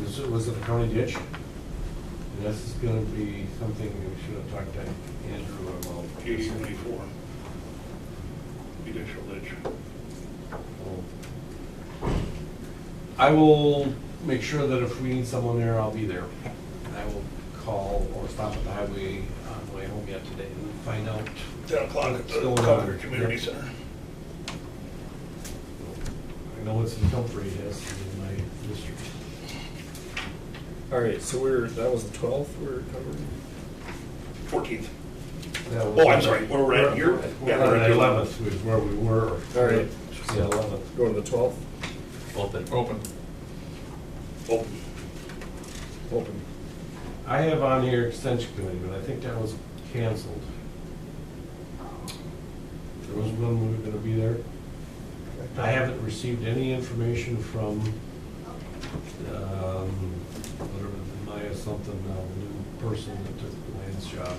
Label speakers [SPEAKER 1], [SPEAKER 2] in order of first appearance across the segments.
[SPEAKER 1] Was it, was it a county ditch? And this is gonna be something we should have talked to Andrew about.
[SPEAKER 2] DD twenty-four. Judicial ditch.
[SPEAKER 1] Oh. I will make sure that if we need someone there, I'll be there. And I will call or stop at the highway on the way home yet today and find out.
[SPEAKER 2] Ten o'clock at the
[SPEAKER 1] Still on.
[SPEAKER 2] Concord Community Center.
[SPEAKER 1] I know it's in Comfrey, yes, in my district.
[SPEAKER 3] All right, so we're, that was the twelfth we're covering?
[SPEAKER 2] Fourteenth.
[SPEAKER 1] That was-
[SPEAKER 2] Oh, I'm sorry, where we're at, you're,
[SPEAKER 1] We're
[SPEAKER 2] yeah,
[SPEAKER 1] at
[SPEAKER 2] we're at
[SPEAKER 1] the
[SPEAKER 2] the
[SPEAKER 1] eleventh, was
[SPEAKER 2] eleventh.
[SPEAKER 1] where we were.
[SPEAKER 3] All right.
[SPEAKER 1] The eleventh.
[SPEAKER 3] Going to the twelfth?
[SPEAKER 4] Open.
[SPEAKER 5] Open.
[SPEAKER 2] Oh,
[SPEAKER 3] Open.
[SPEAKER 1] I have on here extension committee, but I think that was canceled. There was one we were gonna be there. I haven't received any information from, um, whatever, Maya something, uh, new person that took Lance's job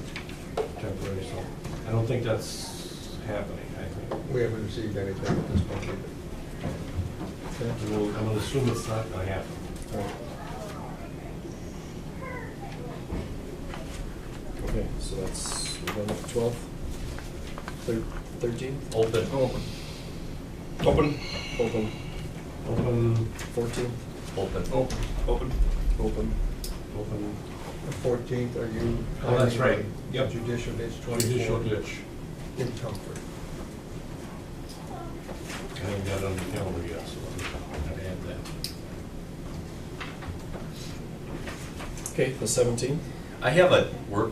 [SPEAKER 1] temporary, so I don't think that's happening, I think.
[SPEAKER 5] We haven't received anything at this point either.
[SPEAKER 3] Okay.
[SPEAKER 1] I'm gonna- I'm gonna assume it's not gonna happen.
[SPEAKER 3] All right. Okay, so that's, we're going to the twelfth? Thirteenth?
[SPEAKER 4] Open.
[SPEAKER 3] Open.
[SPEAKER 2] Open,
[SPEAKER 3] Open.
[SPEAKER 1] Open,
[SPEAKER 3] Fourteenth?
[SPEAKER 4] Open.
[SPEAKER 5] Open.
[SPEAKER 2] open.
[SPEAKER 3] Open.
[SPEAKER 1] open
[SPEAKER 5] The fourteenth, are you?
[SPEAKER 1] Oh, that's right. Yep.
[SPEAKER 5] Judicial ditch
[SPEAKER 1] judicial
[SPEAKER 5] twenty-four.
[SPEAKER 1] ditch.
[SPEAKER 5] In Comfort.
[SPEAKER 1] I haven't got it on the calendar yet, so I'm gonna add that.
[SPEAKER 3] Okay, the seventeenth?
[SPEAKER 4] I have a work,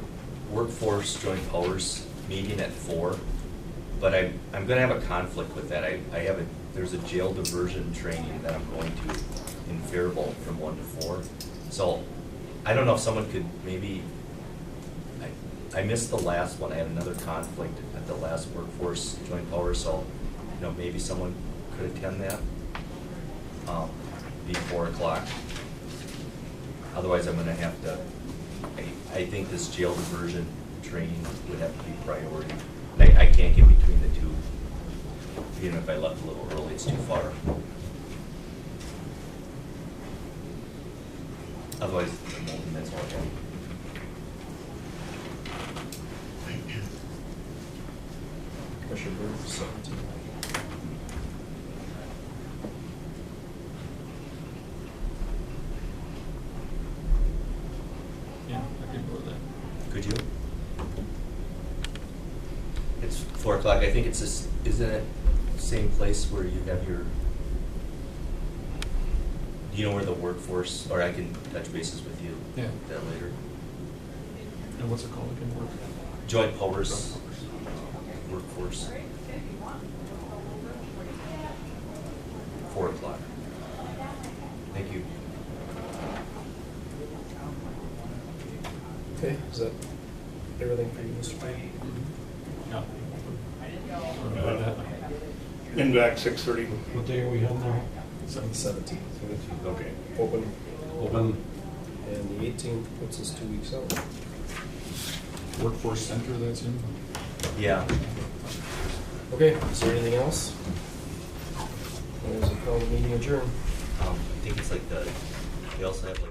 [SPEAKER 4] workforce joint powers meeting at four, but I, I'm gonna have a conflict with that. I, I have a, there's a jail diversion training that I'm going to in Faribault from one to four. So I don't know if someone could maybe, I, I missed the last one. I had another conflict at the last workforce joint powers, so, you know, maybe someone could attend that. Um, be four o'clock. Otherwise, I'm gonna have to, I, I think this jail diversion training would have to be priority. And I, I can't get between the two. Even if I left a little early, it's too far. Otherwise, I'm holding that's all I have.
[SPEAKER 3] Commissioner Bird, seventeen.
[SPEAKER 5] Yeah, I can go with that.
[SPEAKER 4] Could you? It's four o'clock. I think it's this, isn't it same place where you have your, do you know where the workforce, or I can touch bases with you?
[SPEAKER 5] Yeah.
[SPEAKER 4] That later.
[SPEAKER 5] And what's it called again, work?
[SPEAKER 4] Joint powers, workforce. Four o'clock. Thank you.
[SPEAKER 3] Okay, is that everything for you, Mr. Payne?
[SPEAKER 5] No.
[SPEAKER 2] In back, six thirty.
[SPEAKER 1] What day are we on now?
[SPEAKER 3] Seventeenth.
[SPEAKER 1] Seventeenth, okay.
[SPEAKER 3] Open.
[SPEAKER 1] Open,
[SPEAKER 3] And the eighteenth puts us two weeks out.
[SPEAKER 5] Workforce Center that's in?
[SPEAKER 4] Yeah. um,
[SPEAKER 3] Okay, is there anything else? There's a call meeting adjourned.
[SPEAKER 4] Um, I think it's like the, they also have like